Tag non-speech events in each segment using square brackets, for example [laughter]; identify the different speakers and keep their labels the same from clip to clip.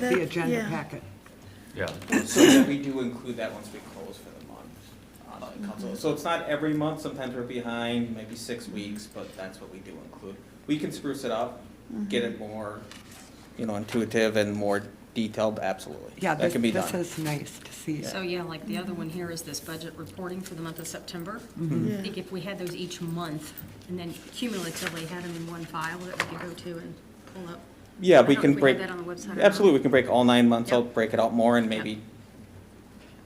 Speaker 1: with
Speaker 2: That-
Speaker 1: the agenda
Speaker 2: yeah.
Speaker 1: packet.
Speaker 3: Yeah,
Speaker 4: So yeah, we do include that once we close for the month on the console. So it's not every month, sometimes we're behind, maybe six weeks, but that's what we do include. We can spruce it up,
Speaker 1: Mm-hmm.
Speaker 4: get it more, you know, intuitive and more detailed, absolutely.
Speaker 1: Yeah,
Speaker 4: That
Speaker 1: this
Speaker 4: can be
Speaker 1: this
Speaker 4: done.
Speaker 1: is nice to see.
Speaker 5: So, yeah, like the other one here is this budget reporting for the month of September. I think
Speaker 2: Yeah,
Speaker 5: if we had those each month and then cumulatively had them in one file that we could go to and pull up.
Speaker 4: Yeah,
Speaker 5: I
Speaker 4: we
Speaker 5: don't
Speaker 4: can
Speaker 5: know if
Speaker 4: break,
Speaker 5: We had that on the website. or not.
Speaker 4: absolutely, we can break all nine months
Speaker 5: Yeah.
Speaker 4: out, break it out more and maybe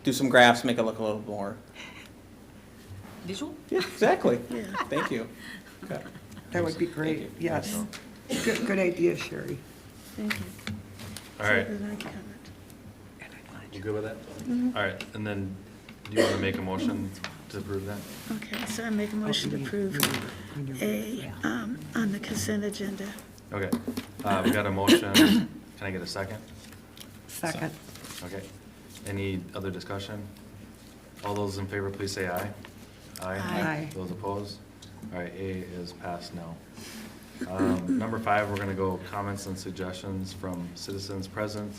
Speaker 4: do some graphs, make it look a little more.
Speaker 1: [laughs]
Speaker 5: Visual?
Speaker 4: Yeah, exactly.
Speaker 2: yeah.
Speaker 4: Thank you. Okay.
Speaker 1: That would be
Speaker 4: Thank
Speaker 1: great,
Speaker 4: you.
Speaker 1: yes. Good, good idea, Sherry.
Speaker 2: Thank you.
Speaker 3: all right,
Speaker 2: So did I comment?
Speaker 3: you good with that? All right, and then, do you want to make a motion to approve that?
Speaker 2: Okay, so I make a motion to approve A um, on the consent agenda.
Speaker 3: Okay, uh, we got a motion, can I get a second?
Speaker 1: Second.
Speaker 3: Okay, any other discussion? All those in favor, please say aye.
Speaker 1: Aye.
Speaker 3: Those opposed? All right, A is passed now. Um, Number five, we're gonna go comments and suggestions from citizens present,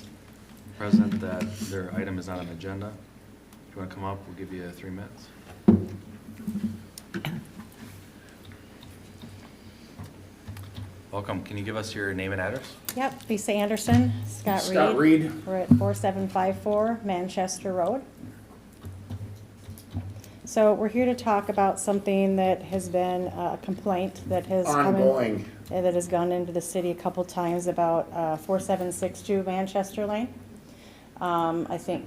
Speaker 3: present that their item is not on agenda. If you wanna come up, we'll give you three minutes. Welcome, can you give us your name and address?
Speaker 6: Yep, Lisa Anderson, Scott Reed.
Speaker 4: Scott Reed.
Speaker 6: We're at 4754 Manchester Road. So we're here to talk about something that has been a complaint that has come in.
Speaker 7: Ongoing.
Speaker 6: uh, That has gone into the city a couple times about uh, 4762 Manchester Lane. Um, I think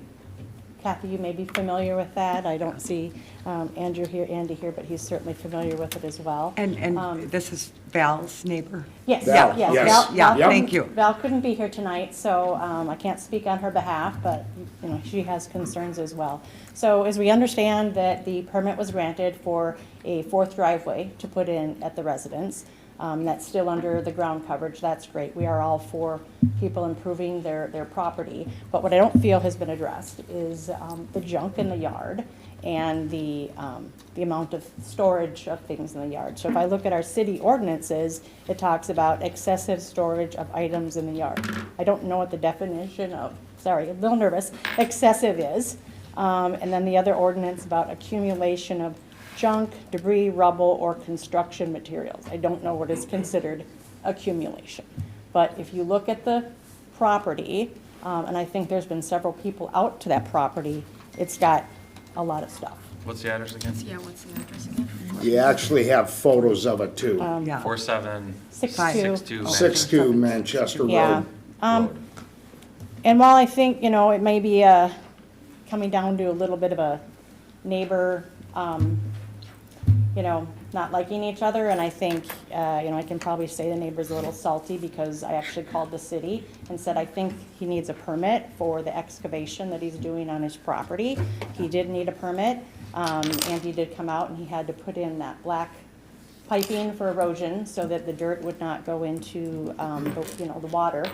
Speaker 6: Kathy, you may be familiar with that. I don't see um, Andrew here, Andy here, but he's certainly familiar with it as well.
Speaker 1: And,
Speaker 6: Um,
Speaker 1: and this is Val's neighbor?
Speaker 6: Yes,
Speaker 7: Val,
Speaker 6: yes, yes.
Speaker 7: yes.
Speaker 6: Val-
Speaker 1: Yeah,
Speaker 6: Val
Speaker 1: thank
Speaker 6: couldn't-
Speaker 1: you.
Speaker 6: Val couldn't be here tonight, so um, I can't speak on her behalf, but, you know, she has concerns as well. So as we understand that the permit was granted for a fourth driveway to put in at the residence, um, that's still under the ground coverage, that's great. We are all for people improving their, their property. But what I don't feel has been addressed is um, the junk in the yard and the, um, the amount of storage of things in the yard. So if I look at our city ordinances, it talks about excessive storage of items in the yard. I don't know what the definition of, sorry, a little nervous, excessive is. Um, and then the other ordinance about accumulation of junk, debris, rubble, or construction materials. I don't know what is considered accumulation. But if you look at the property, um, and I think there's been several people out to that property, it's got a lot of stuff.
Speaker 3: What's the address again?
Speaker 5: Yeah, what's the address again?
Speaker 7: You actually have photos of it too.
Speaker 6: Um,
Speaker 1: Yeah.
Speaker 3: Four seven.
Speaker 6: Six
Speaker 1: Five.
Speaker 6: two.
Speaker 3: two.
Speaker 7: Six two Manchester
Speaker 6: Yeah.
Speaker 7: Road.
Speaker 6: Um, and while I think, you know, it may be, uh, coming down to a little bit of a neighbor, um, you know, not liking each other, and I think, uh, you know, I can probably say the neighbor's a little salty because I actually called the city and said, I think he needs a permit for the excavation that he's doing on his property. He did need a permit, um, and he did come out and he had to put in that black piping for erosion so that the dirt would not go into, um, the- you know, the water,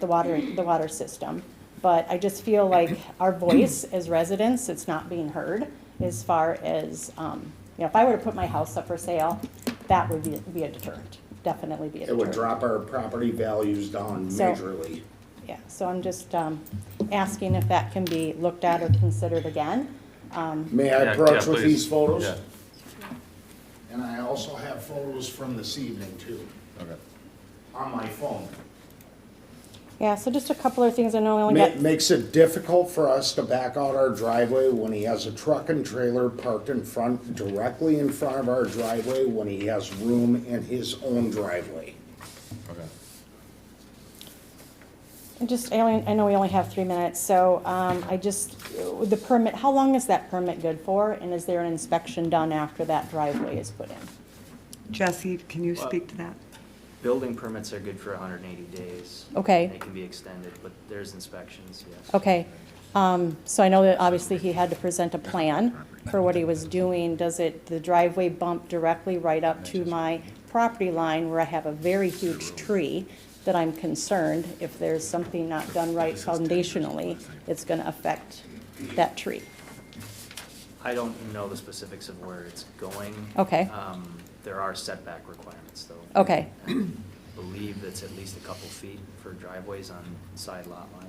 Speaker 6: the water, the water system. But I just feel like our voice as residents, it's not being heard as far as, um, you know, if I were to put my house up for sale, that would be, be a deterrent, definitely be a
Speaker 7: It
Speaker 6: deterrent.
Speaker 7: would drop our property values down
Speaker 6: So-
Speaker 7: majorly.
Speaker 6: Yeah, so I'm just, um, asking if that can be looked at or considered again. Um,
Speaker 7: May
Speaker 3: Yeah,
Speaker 7: I approach
Speaker 3: yeah,
Speaker 7: with
Speaker 3: please.
Speaker 7: these photos?
Speaker 3: Yeah.
Speaker 7: And I also have photos from this evening too,
Speaker 3: Okay.
Speaker 7: on my phone.
Speaker 6: Yeah, so just a couple of things, I know we only
Speaker 7: Ma-
Speaker 6: got,
Speaker 7: Makes it difficult for us to back out our driveway when he has a truck and trailer parked in front, directly in front of our driveway when he has room in his own driveway.
Speaker 3: Okay.
Speaker 6: I just, I only, I know we only have three minutes, so, um, I just, the permit, how long is that permit good for? And is there an inspection done after that driveway is put in?
Speaker 1: Jesse, can you speak to that?
Speaker 8: Building permits are good for 180 days.
Speaker 6: Okay.
Speaker 8: They can be extended, but there's inspections, yes.
Speaker 6: Okay, um, so I know that obviously he had to present a plan for what he was doing. Does it, the driveway bump directly right up to my property line where I have a very huge tree that I'm concerned if there's something not done right foundationally, it's gonna affect that tree?
Speaker 8: I don't know the specifics of where it's going.
Speaker 6: Okay.
Speaker 8: Um, There are setback requirements, though.
Speaker 6: Okay.
Speaker 8: And believe that's at least a couple feet for driveways on side lot lines.